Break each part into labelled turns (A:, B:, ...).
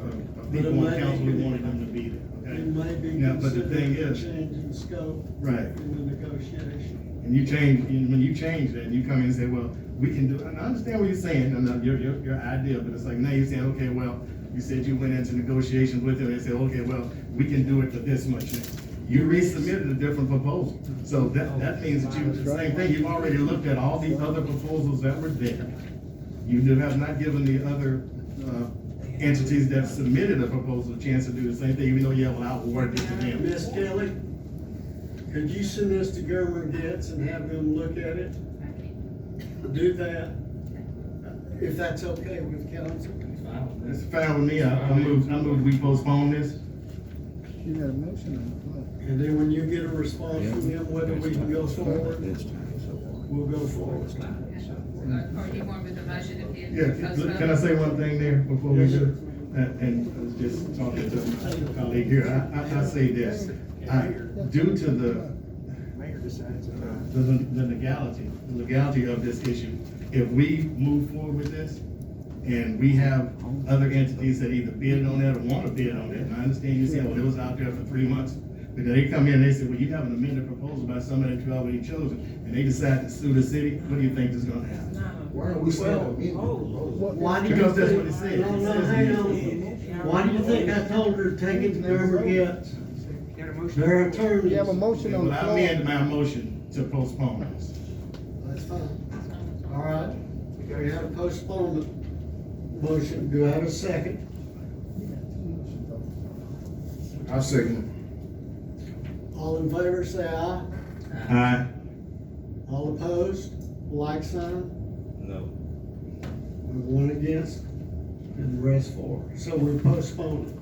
A: But it
B: legal
A: might
B: and counsel, we
A: be-
B: wanted him to be there,
A: It
B: okay?
A: may be
B: Now, but the thing
A: considered a
B: is-
A: change in scope
B: Right,
A: in the negotiation.
B: and you change, and when you change that, and you come in and say, well, we can do, and I understand what you're saying, and uh, your, your, your idea, but it's like, now you're saying, okay, well, you said you went into negotiations with them, they said, okay, well, we can do it for this much now. You resubmitted a different proposal, so that, that means that you, the same thing, you've already looked at all the other proposals that were there. You do- have not given the other, uh, entities that submitted a proposal a chance to do the same thing, even though you have outwarded to them.
A: Miss Kelly, could you send this to Gerwin Getz and have them look at it? Do that, if that's okay with council.
B: It's fine with me, I, I move, I move we postpone this.
C: You got a motion on
A: And then when you get a response from them, whether we can go forward,
D: This time, so far.
A: we'll go forward.
E: Or you want with the motion if you.
B: Yeah, can can I say one thing there before we do? And, and I was just talking to my colleague here, I, I, I say this, I, due to the,
C: Mayor decides.
B: the, the legality, the legality of this issue, if we move forward with this, and we have other entities that either bid on that or wanna bid on that, and I understand you saying, well, it was out there for three months, but then they come in and they say, well, you have an amended proposal by somebody that you already chosen, and they decide to sue the city, what do you think is gonna happen?
D: Why are we
A: Well,
D: still amending the proposal?
F: Why do you
B: Because that's what it
F: think,
B: says.
A: No,
B: It
A: no,
B: says
A: hang
B: amended.
A: on. Why do you think I told her to take it to Gerwin Getz? Their attorneys.
C: You have a motion on the
B: Well, I amend
C: floor.
B: my motion to postpone this.
A: That's fine. All right, we have a postponement motion, do I have a second?
D: I second.
A: All in favor, say aye.
B: Aye.
A: All opposed, like sign,
D: No.
A: and one against, and the rest for. So we're postponing.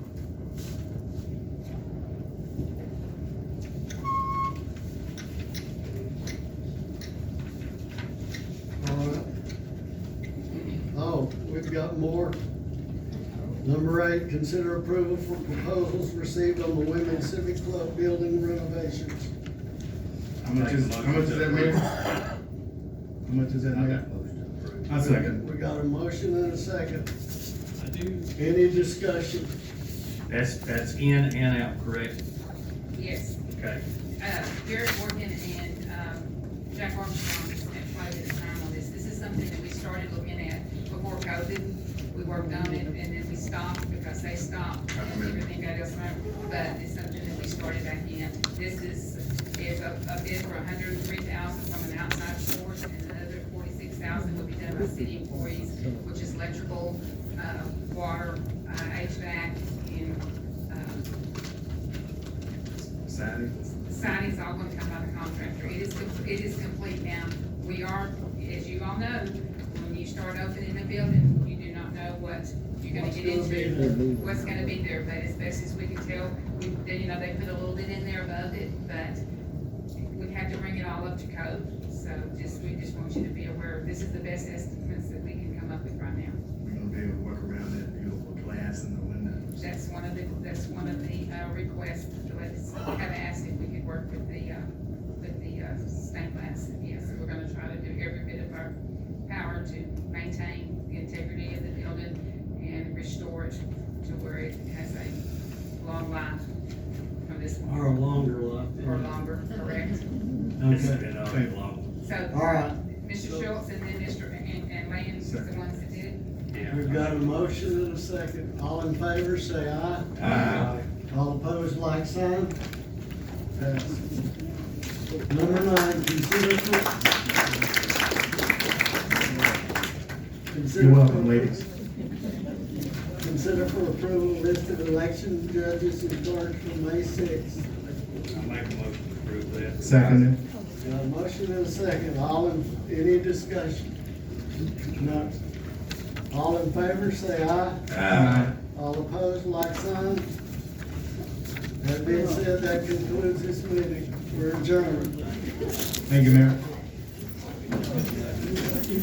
A: All right. Oh, we've got more. Number eight, consider approval for proposals received on the Women's Civic Club building renovations.
B: How much is, how much is that, Mayor? How much is that, Mayor? I second.
A: We got a motion and a second.
G: I do.
A: Any discussion?
G: That's, that's in and out, correct?
E: um, Yes,
G: Okay.
E: uh, Jared Morgan and, um, Jack Armstrong spent quite a bit of time on this. This is something that we started looking at before COVID. We worked on it and then we stopped because they stopped and everything got else wrong. But it's something that we started back in. This is, is a, a bid for hundred and three thousand from an outside source and another forty-six thousand will be done by city employees, which is electrical, uh, water, uh, HVAC and, um,
B: Sign
E: signing's all gonna come by the contractor, it is, com- it is complete now. We are, as you all know, when you start opening a building, you do not know what you're gonna get
A: What's gonna be
E: into, what's gonna be there, but as best as we can tell, we, they, you know, they put a little bit in there above it, but we have to bring it all up to code, so just, we just want you to be aware, this is the best estimates that we can come up with right now.
B: We're gonna be able to work around that beautiful glass in the window.
E: That's one of the, that's one of the, uh, requests, the ladies have asked if we could work with the, uh, with the, uh, stained glass. Yes, we're gonna try to do every bit of our power to maintain the integrity of the building and restore it to where it has a long life from this
A: Or a
E: point,
A: longer life.
E: or longer, correct?
G: It's
A: Okay.
G: been uh, out that long.
A: All
E: So,
A: right,
E: Mr. Schultz and then Mr. and, and Lance is the ones that did it.
A: we've
G: Yeah.
A: got a motion and a second. All in favor, say aye.
B: Aye.
A: All opposed, like sign. Pass. Number nine, consider. Consider-
B: You're welcome, ladies.
A: Consider for approval list of election judges and clerk for May sixth.
G: I make a motion to approve that.
B: Second.
A: Got a motion and a second, all in, any discussion? None. All in favor, say aye.
B: Aye.
A: All opposed, like sign. That being said, that concludes this meeting, we're adjourned.
B: Thank you, Mayor.